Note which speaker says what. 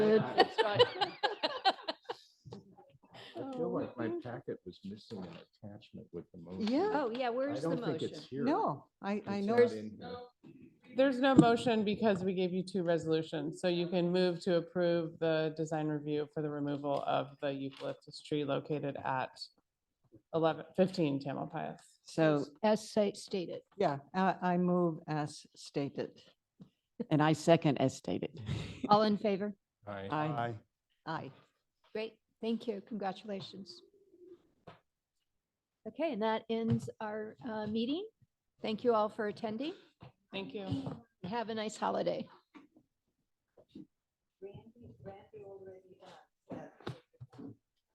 Speaker 1: good.
Speaker 2: I feel like my packet was missing an attachment with the motion.
Speaker 1: Yeah.
Speaker 3: Oh, yeah,
Speaker 2: I
Speaker 3: where's the
Speaker 2: don't think
Speaker 3: motion?
Speaker 2: it's here.
Speaker 1: No, I, I
Speaker 2: It's
Speaker 1: know.
Speaker 2: not in here.
Speaker 4: There's no motion because we gave you two resolutions, so you can move to approve the design review for the removal of the eucalyptus tree located at 11, 15 Tamalpais.
Speaker 1: So,
Speaker 3: As sa- stated.
Speaker 1: yeah, I, I move as stated.
Speaker 5: And I second as stated.
Speaker 3: All in favor?
Speaker 2: Aye.
Speaker 5: Aye.
Speaker 1: Aye.
Speaker 3: Great, thank you, congratulations. Okay, and that ends our uh, meeting. Thank you all for attending.
Speaker 4: Thank you.
Speaker 3: Have a nice holiday.